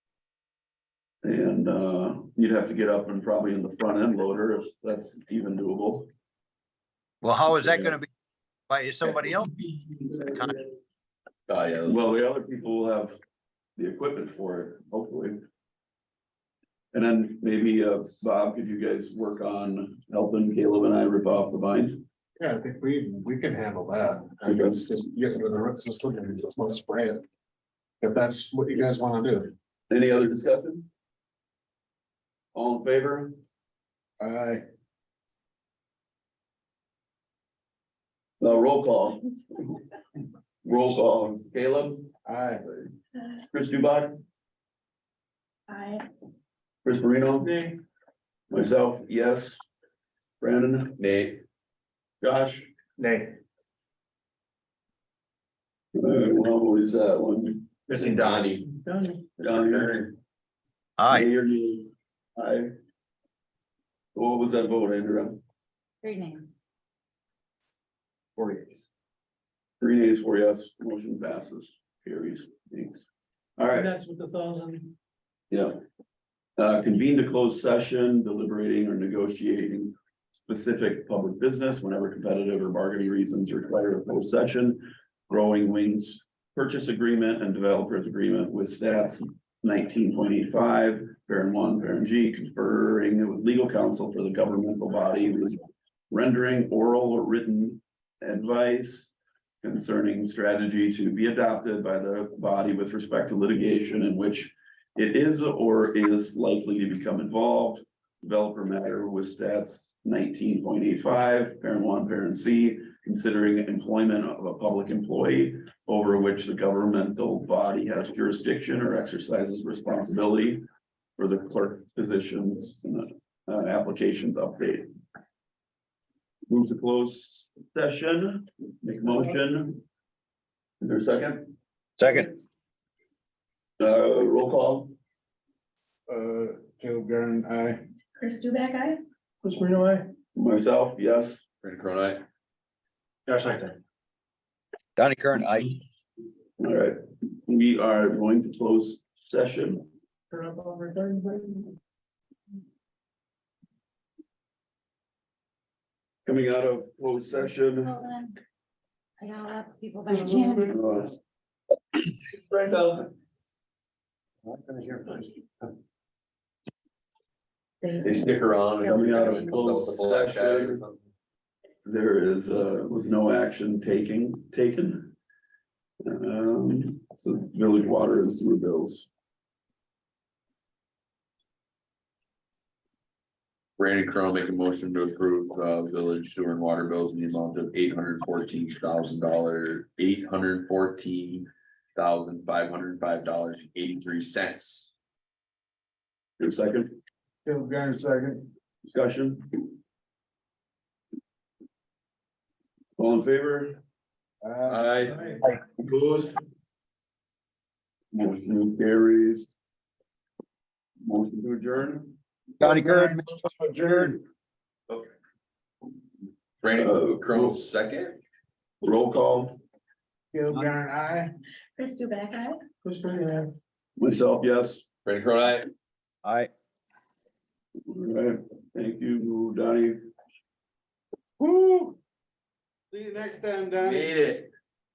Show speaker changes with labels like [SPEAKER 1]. [SPEAKER 1] And, uh, you'd have to get up and probably in the front end loader, if that's even doable.
[SPEAKER 2] Well, how is that
[SPEAKER 1] Yeah.
[SPEAKER 2] gonna be? By somebody else?
[SPEAKER 3] Oh, yeah.
[SPEAKER 1] Well, the other people will have the equipment for it, hopefully. And then maybe, uh, Bob, could you guys work on helping Caleb and I rip off the vines?
[SPEAKER 4] Yeah, I think we, we can handle that. I
[SPEAKER 1] Okay.
[SPEAKER 4] guess just get rid of the root system and just let's spray it. If that's what you guys wanna do.
[SPEAKER 1] Any other discussion? All in favor?
[SPEAKER 4] I,
[SPEAKER 1] No, Uh, roll call. Roll call. Caleb,
[SPEAKER 4] I,
[SPEAKER 1] Chris Dubak,
[SPEAKER 5] Uh, I,
[SPEAKER 1] Chris Marino. Myself, yes. Brandon,
[SPEAKER 3] Nate,
[SPEAKER 1] Josh.
[SPEAKER 6] Nay,
[SPEAKER 1] Uh, well, who is that one?
[SPEAKER 6] missing
[SPEAKER 3] Donnie.
[SPEAKER 6] Donnie.
[SPEAKER 1] Donnie.
[SPEAKER 2] Aye.
[SPEAKER 1] Mayor Dean. Aye. What was that vote, Andrew?
[SPEAKER 5] three names.
[SPEAKER 6] Four years.
[SPEAKER 1] Three days for yes, motion passes, carries, thanks. All right.
[SPEAKER 6] That's with the thousand.
[SPEAKER 1] Yeah. Uh, convene to closed session deliberating or negotiating specific public business whenever competitive or bargaining reasons require a closed session. Growing Wings Purchase Agreement and Developers Agreement with stats nineteen point eight five, parent one, parent G, conferring with legal counsel for the governmental body rendering oral or written advice concerning strategy to be adopted by the body with respect to litigation in which it is or is likely to become involved. Developer matter with stats nineteen point eight five, parent one, parent C, considering employment of a public employee. Over which the governmental body has jurisdiction or exercises responsibility. For the clerk positions and uh, applications update. Move to close session, make motion. Is there a second?
[SPEAKER 2] Second,
[SPEAKER 1] Uh, roll call.
[SPEAKER 4] uh, Caleb Garn, I.
[SPEAKER 5] Chris Dubak, I.
[SPEAKER 6] Chris Marino, I.
[SPEAKER 1] Myself, yes.
[SPEAKER 3] Brandon Cronin, aye.
[SPEAKER 6] Josh, I did.
[SPEAKER 2] Donnie Kern, aye.
[SPEAKER 1] All right, we are going to close session.
[SPEAKER 6] Turn up all recording button.
[SPEAKER 1] Coming out of closed session.
[SPEAKER 5] Hold on. I got a lot of people by chance.
[SPEAKER 1] uh,
[SPEAKER 3] They stick around. and-
[SPEAKER 1] Coming out of closed session. There is, uh, was no action taking, taken. Um, so village water and sewer bills.
[SPEAKER 3] Brandon Crowe make a motion to approve, uh, village sewer and water bills in the amount of eight hundred fourteen thousand dollars, eight hundred fourteen thousand five hundred five dollars and eighty-three cents.
[SPEAKER 1] Your second
[SPEAKER 4] Caleb Garn, second.
[SPEAKER 1] discussion. All in favor?
[SPEAKER 4] I.
[SPEAKER 1] Uh,
[SPEAKER 3] Aye.
[SPEAKER 1] Opposed? Motion carries. Motion to adjourn.
[SPEAKER 2] Donnie Kern,
[SPEAKER 4] Adjourn.
[SPEAKER 3] Brandon
[SPEAKER 1] Uh,
[SPEAKER 3] Crowe second.
[SPEAKER 1] Roll call.
[SPEAKER 4] Caleb Garn, I.
[SPEAKER 5] Chris Dubak, I.
[SPEAKER 1] Myself, yes.
[SPEAKER 3] Brandon Crowe, aye.
[SPEAKER 2] aye.
[SPEAKER 1] All right, thank you, Donnie.
[SPEAKER 4] Woo! See you next time, Donnie.
[SPEAKER 3] Made it.